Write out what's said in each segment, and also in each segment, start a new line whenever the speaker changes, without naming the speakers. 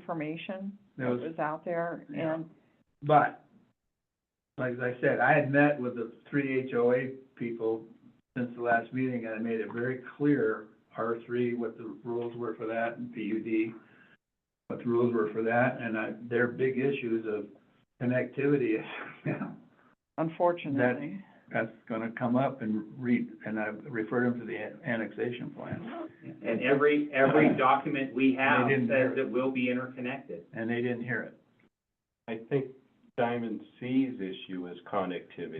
misinformation
There
that
was-
was out there,
Yeah.
and,
But, like I said, I had met with the three HOA people since the last meeting, and I made it very clear, R three, what the rules were for that, and PUD, what the rules were for that, and I, their big issues of connectivity,
unfortunately.
that's gonna come up and read, and I referred them to the an- annexation plan,
And every, every document we have
They didn't hear
says
it.
it will be interconnected.
and they didn't hear it.
I think Diamond C's issue is connectivity,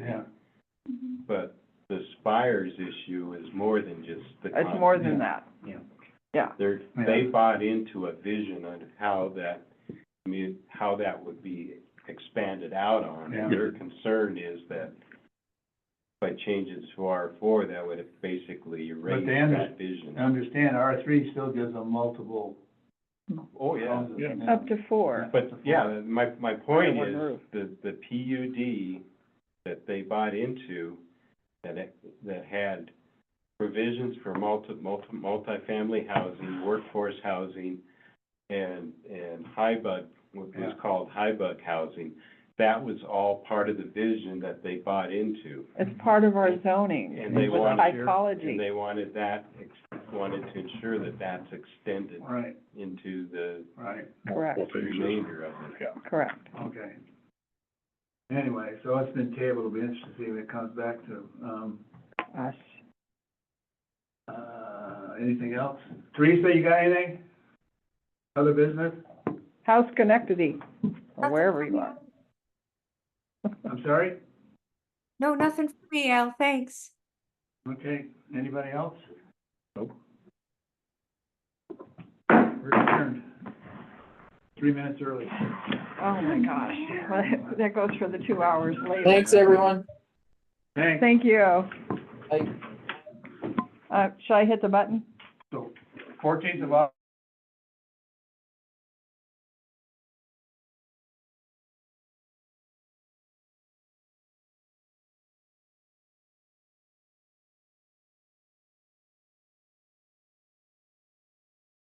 Mm-hmm.
but the Spire's issue is more than just the
It's more
connectivity.
than that,
They're,
Yeah.
they bought into a vision on how that, I mean, how that would be expanded out on. And
Yeah.
their concern is that by changing to R four, that would basically erase
they under-
that vision.
Understand, R three still gives them multiple
Oh, yeah.
houses.
up to four,
But, yeah, my, my point
one
is,
roof.
the, the PUD that they bought into, that it, that had provisions for multi, multi, multifamily housing, workforce housing, and, and high bug, what was
Yeah.
called high bug housing, that was all part of the vision that they bought into.
it's part of our zoning,
And they
it was
wanted
your-
psychology.
And they wanted that, ex- wanted to ensure that that's extended
Right,
into the
right.
Correct,
remainder of it.
correct.
Okay. Anyway, so it's been tabled, it'll be interesting to see when it comes back to, um,
Us.
uh, anything else? Teresa, you got anything? Other business?
House Schenectady, or wherever you are.
I'm sorry?
No, nothing for me, Al, thanks.
Okay, anybody else? Nope. We're adjourned. Three minutes early.
Oh, my gosh, that goes for the two hours later.
Thanks, everyone.
Thanks.
Thank you.
Bye.
Uh, should I hit the button?
Fourteenth of August.